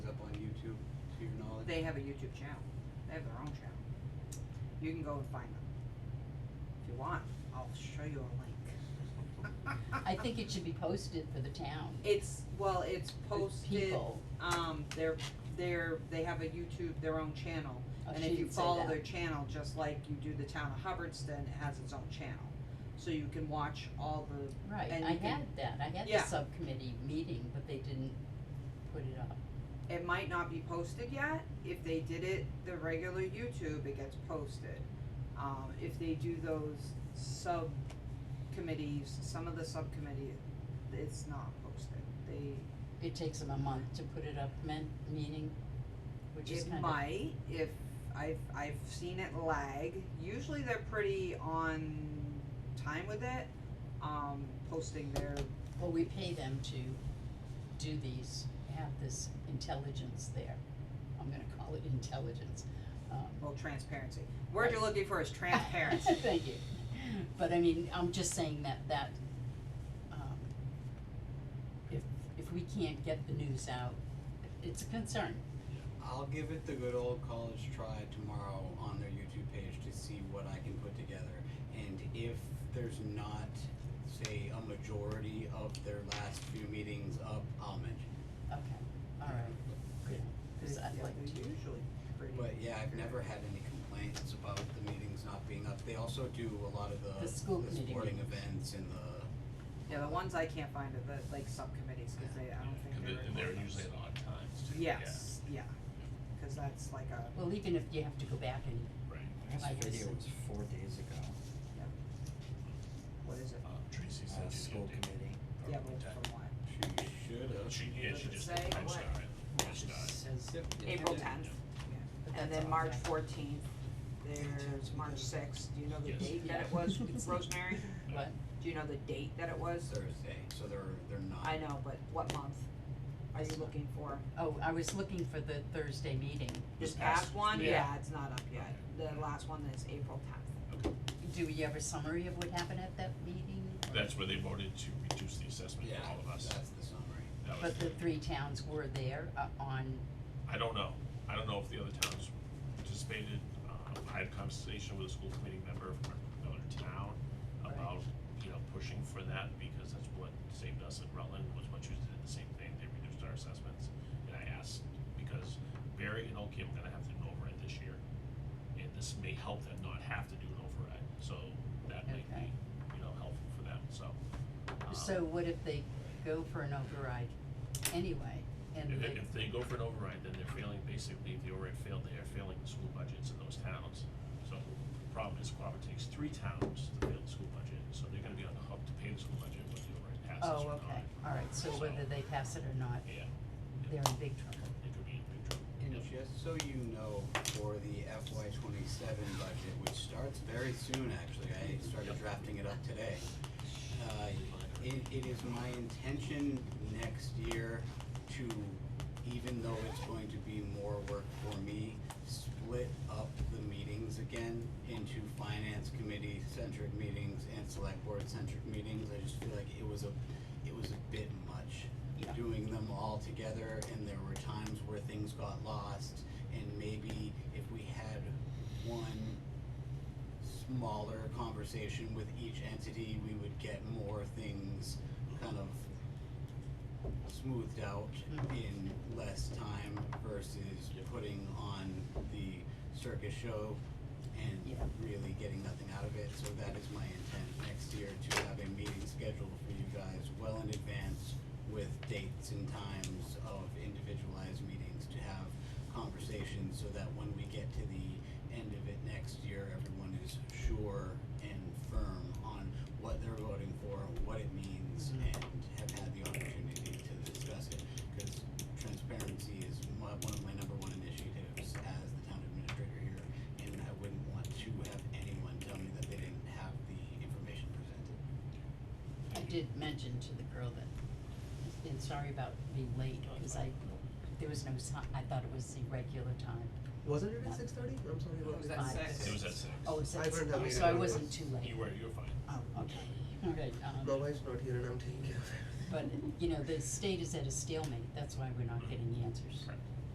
they have a YouTube channel. They have their own channel. You can go and find them. If you want, I'll show you a link. I think it should be posted for the town. It's, well, it's for posted, People, um, they're, they're, they have a YouTube, their own channel. oh, And she if you didn't say follow that. their channel, just like you do the town of Hubbardston, it has its own channel. So you can watch all the, Right, and I you can- had that, I had Yeah. the subcommittee meeting, but they didn't put it up. it might not be posted yet, if they did it the regular YouTube, it gets posted. Um, if they do those subcommittees, some of the subcommittee, it's not posted, they, It takes them a month to put it up, meant, meaning, which is it kind of, might, if, I've, I've seen it lag, usually they're pretty on time with it, um, posting their well, we pay them to do these, have this intelligence there. I'm gonna call it intelligence, um. Well, transparency. Word you're Right. looking for is transparency. Thank you. But I mean, I'm just saying that, that, um, if, if we can't get the news out, it's a concern. I'll give it the good old college try tomorrow on their YouTube page to see what I can put together. And if there's not, say, a majority of their last few meetings up, I'll mention. Okay, all right, good, because I'd Yeah, like they're to. Usually pretty. But yeah, I've never had any complaints about the meetings not being up. They also do a lot of the, The school the committee sporting events and the, Yeah, the ones I can't find are the, like, subcommittees, cause they, I don't think And they're. they- and they're recorded. usually at odd times too. yeah. Yes, yeah, cause that's like a, Well, even if you have to go back and, Right. I Last video guess- was four days ago, what is it? Uh, Tracy uh, said she school did it. committee, Yeah, Or but ten. from what? she should have. She, yeah, Does she it just, say I'm what? sorry, just just died. says, Yep. April Yeah. tenth, but and that's then all March that- fourteenth, there's March sixth, do you know the Yes. date that it Yeah. was, Rosemary? What, Do you know the date that it was? Uh, Thursday, so they're, they're not. I know, but what month are you looking for? oh, I was looking for the Thursday meeting. This past- past one, yeah. yeah, it's not up yet, the last one is April tenth, Do we have a summary of what happened at that meeting? or- That's where they voted to reduce the assessment Yeah, for all of us. that's the summary. That was, But the three towns were there uh, on, I don't know, I don't know if the other towns participated, um, I had a conversation with a school committee member from another town Right. about, you know, pushing for that, because that's what saved us at Rutland, was what you did, the same thing, they reduced our assessments. And I asked, because Barry and Oakham are gonna have to do an override this year, and this may help them not have to do an override, so that might be, Okay. you know, helpful for them, so. um, so what if they go for an override anyway? And If, they, if they go for an override, then they're failing, basically, if the override failed, they are failing the school budgets in those towns. So the problem is Quabbin takes three towns to fail the school budget, so they're gonna be on the hook to pay the school budget when the override passes oh, or not. okay, all right, so whether they pass it or not, Yeah, they're in big trouble. it could be in big trouble. And Yep. just so you know, for the FY twenty-seven budget, which starts very soon, actually, I started Yep. drafting it up today. Uh, it, it is my intention next year to, even though it's going to be more work for me, split up the meetings again into finance committee centric meetings and select board centric meetings. I just feel like it was a, it was a bit much Yeah. doing them all together and there were times where things got lost and maybe if we had one smaller conversation with each entity, we would get more things kind of smoothed out Mhm. in less time versus putting on the circus show and Yeah. really getting nothing out of it, so that is my intent next year to have a meeting scheduled for you guys well in advance with dates and times of individualized meetings to have conversations so that when we get to the end of it next year, everyone is sure and firm on what they're voting for, what it means, and have had the opportunity to discuss it. Cause transparency is my, one of my number one initiatives as the town administrator here, and I wouldn't want to have anyone tell me that they didn't have the information presented. I did mention to the girl that, and sorry about being late, cause I, there was no sign, I thought it was the regular time. Wasn't it at six thirty? I'm sorry, what was It that? was at Five. six. It was at six. Oh, it's I at, learned that oh, later so I than it wasn't was. too late. You were, you were fine. Oh, okay, all right, um. My wife's not here and I'm taking care of it. But, you know, the state is at a stalemate, that's why we're not getting the answers. Correct.